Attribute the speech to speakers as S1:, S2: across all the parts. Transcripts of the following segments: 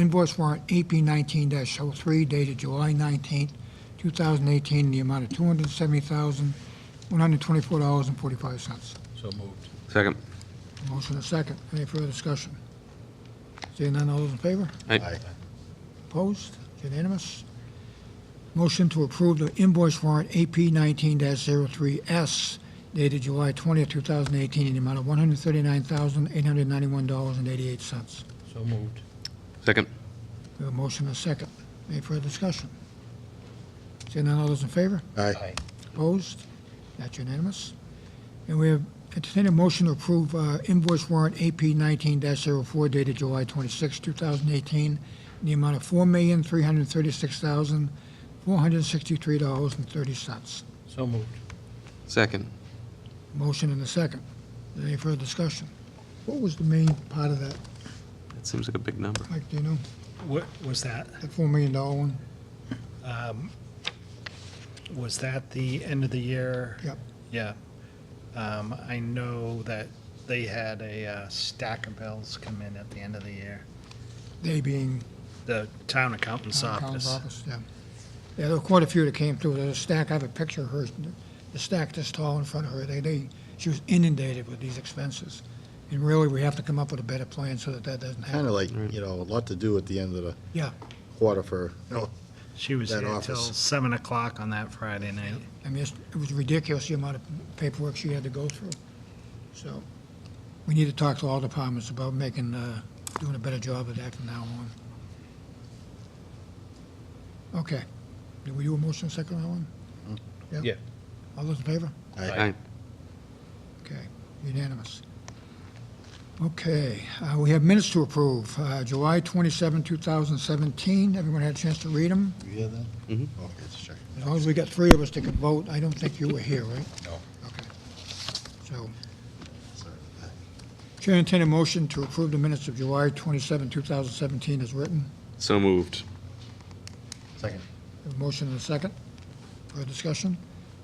S1: Invoice warrant E AP nineteen 3 dated July nineteenth, two thousand eighteen, in the amount of two hundred and seventy thousand, one hundred and twenty-four dollars and forty-five cents.
S2: So moved.
S3: Second.
S1: Motion and second. Any further discussion? Seeing none, all those in favor?
S3: Aye.
S1: Opposed? It's Unanimous? Motion to approve the invoice warrant E AP nineteen 3s dated July twentieth, two thousand eighteen, in the amount of one hundred and thirty-nine thousand, eight hundred and ninety-one dollars and eighty-eight cents.
S2: So moved.
S3: Second.
S1: We have a motion and a second. Any further discussion? Seeing none, all those in favor?
S2: Aye.
S1: Opposed? That's unanimous. And we have entertained a motion to approve uh, invoice warrant AP nineteen 4 dated July 26, thousand eighteen, in the amount of four million, three hundred and thirty-six thousand, four hundred and sixty-three dollars and thirty cents.
S2: So moved.
S3: Second.
S1: Motion and a second. Any further discussion? What was the main part of that,
S3: That seems like a big number.
S1: Mike, do you know?
S4: What was that?
S1: The four million dollar one?
S4: Um, Was that the end of the year?
S1: Yep.
S4: Yeah. Um, I know that they had a uh, stack of bills come in at the end of the year.
S1: They being
S4: The town accountant's
S1: Town's
S4: office.
S1: office, yeah. Yeah, there were quite a few that came through. There's a stack, I have a picture of her, the stack this tall in front of her. They, they, she was inundated with these expenses. And really, we have to come up with a better plan so that that doesn't
S5: Kind
S1: happen.
S5: of like, you know, a lot to do at the end of the
S1: Yeah,
S5: quarter for, you know,
S4: She was
S5: That
S4: here till
S5: office.
S4: seven o'clock on that Friday night.
S1: I mean, it's- it was ridiculous, the amount of paperwork she had to go through. So, we need to talk to all departments about making, uh, doing a better job of that from now on. Okay. Did we do a motion second on that one?
S2: Yeah.
S1: All those in favor?
S3: Aye.
S1: Okay, unanimous. Okay, uh, we have minutes to approve. Uh, July 27, 2017, everyone had a chance to read them?
S5: you hear that?
S3: Mhm.
S5: Okay, let's check.
S1: As long as we got three of us that could vote, I don't think you were here, right?
S5: No.
S1: Okay. So,
S5: Sorry.
S1: Chair entertain a motion to approve the minutes of July 27, 2017 as written.
S3: So moved.
S5: Second.
S1: A motion and a second for discussion.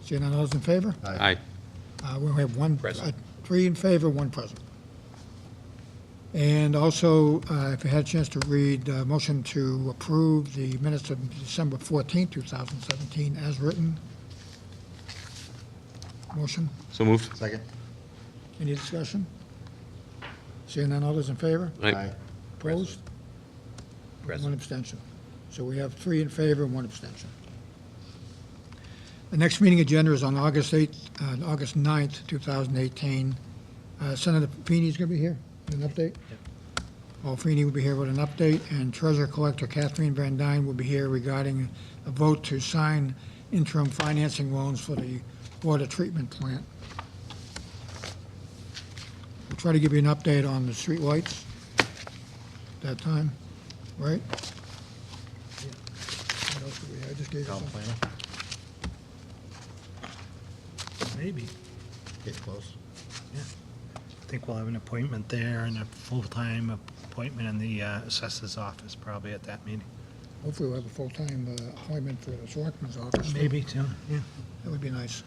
S1: Seeing none, all those in favor?
S3: Aye.
S1: Uh, We only have one.
S2: Present.
S1: uh, Three in favor, one present. And also, uh, if you had a chance to read, uh, motion to approve the minutes of December 14, 2017, as written. Motion,
S3: So moved.
S5: Second.
S1: any discussion? Seeing none, others in favor?
S3: Aye.
S1: Opposed? One
S2: Present.
S1: abstention. So we have three in favor and one abstention. The next meeting agenda is on August 8th, uh, August 9th, 2018. Uh, Senator Feeney's going to be here with an update. Paul Feeney will be here with an update, and Treasurer Collector Kathleen Van Dyne will be here regarding a vote to sign interim financing loans for the water treatment plant. We'll try to give you an update on the streetlights at that time, right? What else do we have? I just gave you
S5: Town
S1: something.
S5: planner,
S4: Maybe.
S5: get close.
S4: I think we'll have an appointment there and a full-time appointment in the uh, assessors office probably at that meeting.
S1: Hopefully we'll have a full-time uh, appointment for the selectmen's office.
S4: Maybe, too. Yeah.
S1: That would be nice.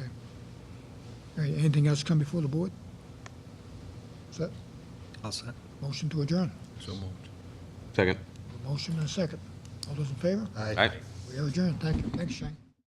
S1: Okay. All right, anything else come before the board? Is that
S4: All set.
S1: motion to adjourn?
S2: So moved.
S3: Second.
S1: Motion and a second. All those in favor?
S5: Aye.
S3: Aye.
S1: We are adjourned. Thank you. Thanks, Shane.